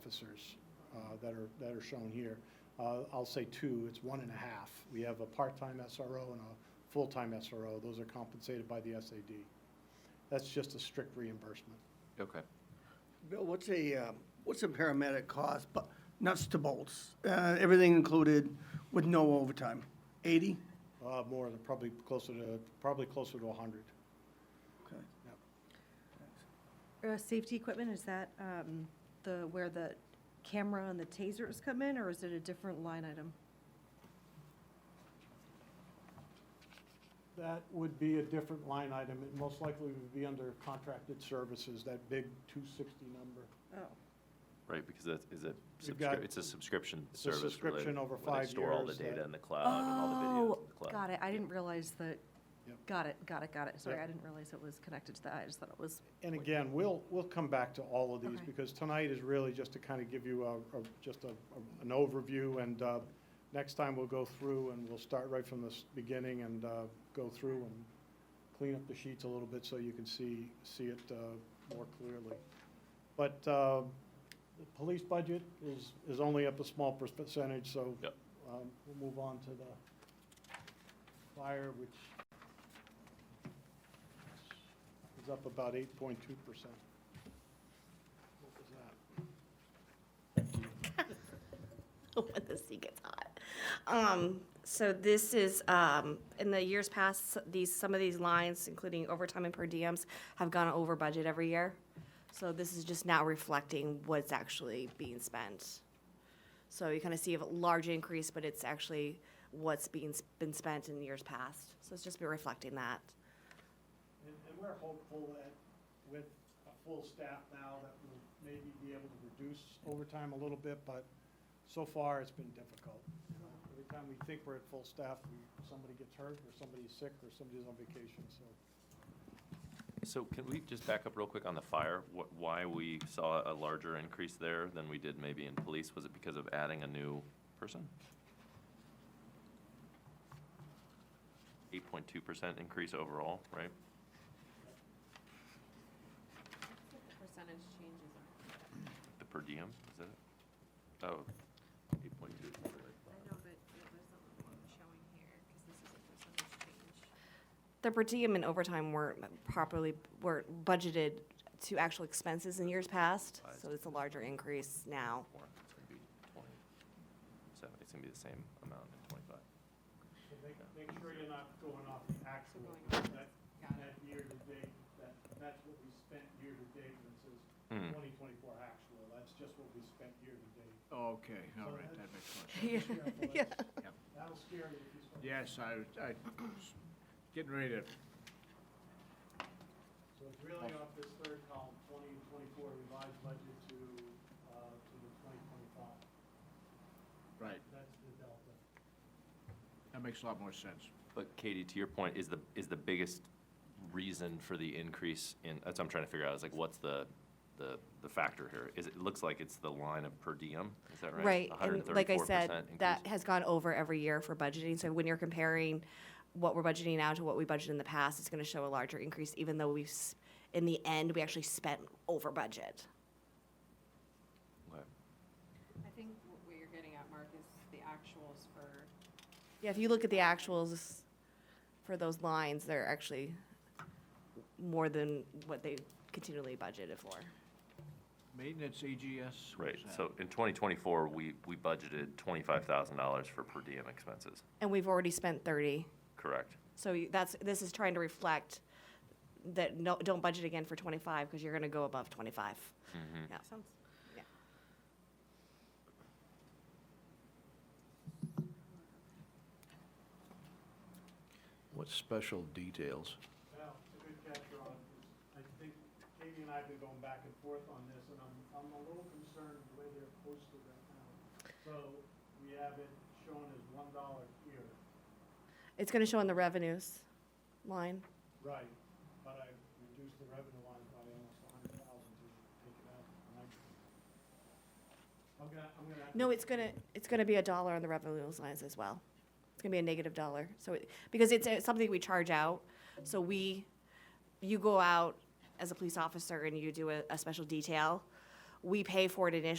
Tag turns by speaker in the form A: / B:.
A: officers uh, that are, that are shown here. Uh, I'll say two, it's one and a half. We have a part-time SRO and a full-time SRO. Those are compensated by the SAD. That's just a strict reimbursement.
B: Okay.
C: Bill, what's a, um, what's a paramedic cost, but nuts to bolts, uh, everything included with no overtime? Eighty?
A: Uh, More, than- probably closer to, probably closer to 100.
C: Okay.
A: Yep.
D: Uh, Safety equipment, is that um, the, where the camera and the tasers come in, or is it a different line item?
A: That would be a different line item. It most likely would be under contracted services, that big 260 number.
D: Oh,
B: Right, because that's, is it,
A: You've got-
B: subscrip- it's a subscription
A: It's a
B: service. where they-
A: subscription over
B: where they
A: five
B: Store all the
A: years
B: data
A: that-
B: Uh, in the cloud and all the videos in the cloud.
D: Oh, Got it, I didn't realize that,
A: Yep.
D: got it, got it, got it. Sorry,
A: Yep.
D: I didn't realize it was connected to that, I just thought it was,
A: And again, we'll, we'll come back to all of these,
D: Okay.
A: because tonight is really just to kind of give you a, a- just a, a- an overview, and uh, next time we'll go through, and we'll start right from the s- beginning and uh, go through and clean up the sheets a little bit so you can see, see it uh, more clearly. But uh, the police budget is, is only up a small percentage, so
B: Yep.
A: um, we'll move on to the fire, which is up about 8.2%. What was that?
E: when the sea gets hot. Um, so this is, um, in the years past, s- these, some of these lines, including overtime and per diems, have gone over budget every year. So this is just now reflecting what's actually being spent. So you kind of see a large increase, but it's actually what's being, s- been spent in years past. So it's just been reflecting that.
A: And and we're hopeful that with a full staff now, that we'll maybe be able to reduce overtime a little bit, but so far, it's been difficult. You know, Every time we think we're at full staff, we- somebody gets hurt, or somebody's sick, or somebody's on vacation, so.
B: So can we just back up real quick on the fire? Wh- Why we saw a larger increase there than we did maybe in police? Was it because of adding a new person? Eight point two percent increase overall, right?
E: Percentage changes
B: The per diem, is that it? Oh, eight point two.
E: I know, but it wasn't showing here, because this is a percentage change. The per diem and overtime weren't properly, weren't budgeted to actual expenses in years past, so it's a larger increase now.
B: Four, it's gonna be twenty-seven, it's gonna be the same amount in twenty-five.
A: Make, make sure you're not going off the actual, that, that year-to-date, that, that's what we spent year-to-date, and
B: Hmm.
A: it says 2024 actual, that's just what we spent year-to-date.
F: Okay, all right, that makes more sense.
A: Yeah.
F: Yep.
A: That'll scare you if you start.
F: Yes, I, was- I was getting ready to,
A: So it's really off this third column, twenty and twenty-four revised budget to, uh, to the twenty twenty-five.
F: right,
A: That's the delta.
F: that makes a lot more sense.
B: But Katie, to your point, is the, is the biggest reason for the increase in, that's what I'm trying to figure out, is like, what's the, the, the factor here? Is, it it looks like it's the line of per diem, is that right?
E: Right, and like I
B: 134%
E: said, that
B: increase?
E: has gone over every year for budgeting, so when you're comparing what we're budgeting now to what we budgeted in the past, it's gonna show a larger increase, even though we've, s- in the end, we actually spent over budget.
B: Okay.
G: I think what what you're getting at, Mark, is the actuals for,
E: Yeah, if you look at the actuals for those lines, they're actually more than what they continually budgeted for.
F: Maintenance E EGS? what
B: Right,
F: is that?
B: so in twenty twenty-four, we, we budgeted twenty-five thousand dollars for per diem expenses,
E: And we've already spent thirty.
B: correct?
E: So you- that's, this is trying to reflect that no, don't budget again for twenty-five because you're gonna go above twenty-five.
B: Mm-hmm.
E: Yeah.
G: sounds
H: What special details?
A: Now, it's a good catch, Ron, 'cause I think Katie and I have been going back and forth on this, and I'm, I'm a little concerned the way they're posted right now. So we have it shown as one dollar here.
E: It's gonna show in the revenues line.
A: Right, but I reduced the revenue line by almost a hundred thousand to take it out. and I- I'm gonna, I'm gonna. have to-
E: No, it's gonna, it's gonna be a dollar on the revenues lines as well. It's gonna be a negative dollar, so, it- because it's uh, something we charge out, so we, you go out as a police officer and you do a, a special detail, we pay for it initially